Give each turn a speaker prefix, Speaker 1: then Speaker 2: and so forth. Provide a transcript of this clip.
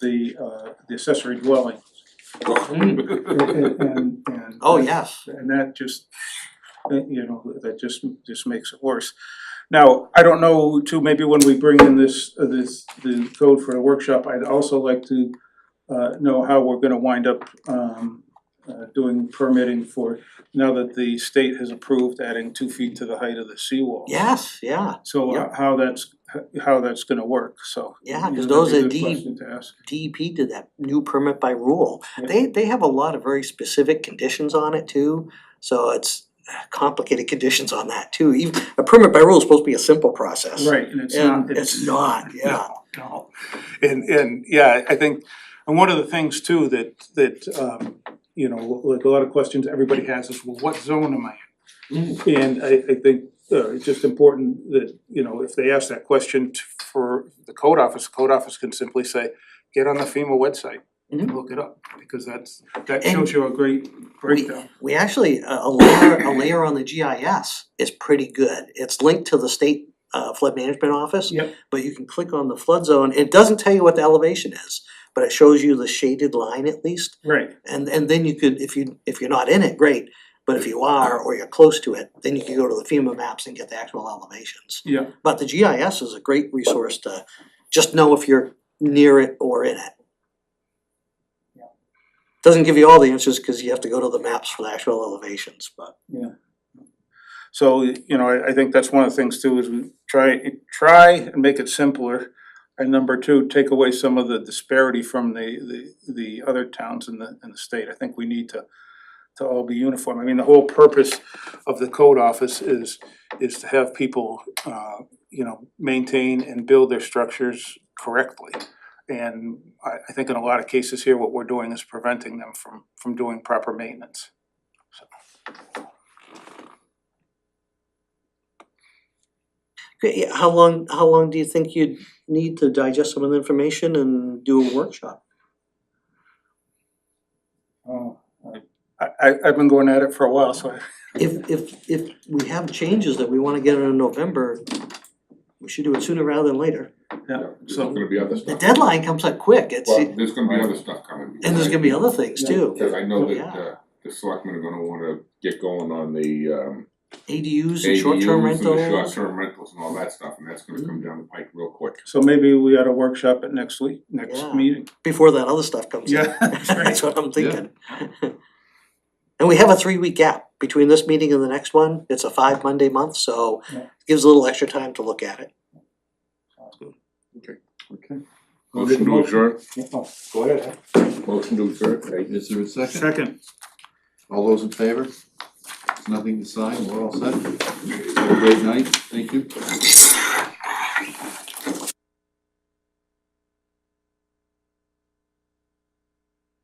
Speaker 1: the uh the accessory dwelling. And and and-
Speaker 2: Mm. Oh, yes,
Speaker 1: and that just, that, you know, that just just makes it worse. Now, I don't know too, maybe when we bring in this uh, this the code for the workshop, I'd also like to uh know how we're gonna wind up um uh doing permitting for now that the state has approved adding two feet to the height of the seawall.
Speaker 2: yes, yeah,
Speaker 1: So uh,
Speaker 2: Yeah.
Speaker 1: how that's how that's gonna work, so.
Speaker 2: Yeah,
Speaker 1: that'd
Speaker 2: 'cause those
Speaker 1: be a
Speaker 2: are
Speaker 1: good
Speaker 2: deed-
Speaker 1: Question to ask.
Speaker 2: DEP E did that new permit by rule.
Speaker 1: Yeah.
Speaker 2: They, they have a lot of very specific conditions on it too, so it's complicated conditions on that too. Even, a permit by rule is supposed to be a simple process.
Speaker 1: Right, and it's
Speaker 2: And
Speaker 1: not,
Speaker 2: it's not, yeah,
Speaker 1: No. And and yeah, I think, and one of the things too that that um, you know, like a lot of questions everybody has is, well, what zone am I in?
Speaker 2: Mm.
Speaker 1: And I I think uh it's just important that, you know, if they ask that question t- for the code office, the code office can simply say, get on the FEMA website and
Speaker 2: Mhm.
Speaker 1: look it up, because that's, that
Speaker 2: And-
Speaker 1: shows you a great
Speaker 2: we,
Speaker 1: breakdown.
Speaker 2: we actually, a a layer, a layer on the GIS is pretty good. It's linked to the state uh, flood management office.
Speaker 1: Yep.
Speaker 2: But you can click on the flood zone, it doesn't tell you what the elevation is, but it shows you the shaded line at least.
Speaker 1: Right,
Speaker 2: And and then you could, if you, if you're not in it, great, but if you are, or you're close to it, then you can go to the FEMA maps and get the actual elevations.
Speaker 1: yeah,
Speaker 2: But the GIS is a great resource to just know if you're near it or in it. Doesn't give you all the answers, cause you have to go to the maps for the actual elevations, but
Speaker 1: so, you know, I I think that's one of the things too, is we try, try and make it simpler. And number two, take away some of the disparity from the the the other towns in the in the state. I think we need to to all be uniform. I mean, the whole purpose of the code office is is to have people uh you know, maintain and build their structures correctly. And I I think in a lot of cases here, what we're doing is preventing them from from doing proper maintenance.
Speaker 2: Okay, yeah, how long, how long do you think you'd need to digest some of the information and do a workshop?
Speaker 1: Oh, I I I've been going at it for a while, so I
Speaker 2: If if if we have changes that we wanna get in November, we should do it sooner rather than later.
Speaker 1: Yeah,
Speaker 3: There's
Speaker 1: so,
Speaker 3: gonna be other
Speaker 2: The
Speaker 3: stuff.
Speaker 2: deadline comes up quick, it's,
Speaker 3: Well,
Speaker 2: and
Speaker 3: there's gonna be other stuff coming.
Speaker 2: there's gonna be other things too,
Speaker 3: Cause I know that
Speaker 2: Yeah.
Speaker 3: uh the selectmen are gonna wanna get going on the um
Speaker 2: ADUs and
Speaker 3: ADUs
Speaker 2: short-term
Speaker 3: and
Speaker 2: rentals. Mm-hmm.
Speaker 3: the short-term rentals and all that stuff, and that's gonna come down the pike real quick.
Speaker 1: so maybe we ought to workshop it next week, next
Speaker 2: Yeah.
Speaker 1: meeting.
Speaker 2: Before that other stuff comes in.
Speaker 1: Yeah, that's right.
Speaker 2: That's what I'm thinking. And we have a three-week gap between this meeting and the next one, it's a five Monday month, so
Speaker 1: Yeah.
Speaker 2: gives a little extra time to look at it.
Speaker 4: Okay.
Speaker 3: Motion to adjourn,
Speaker 1: Go ahead.
Speaker 3: motion to adjourn, right?
Speaker 4: Is there a second?
Speaker 1: Second.
Speaker 4: All those in favor? Nothing to sign, we're all set. Have a great night, thank you.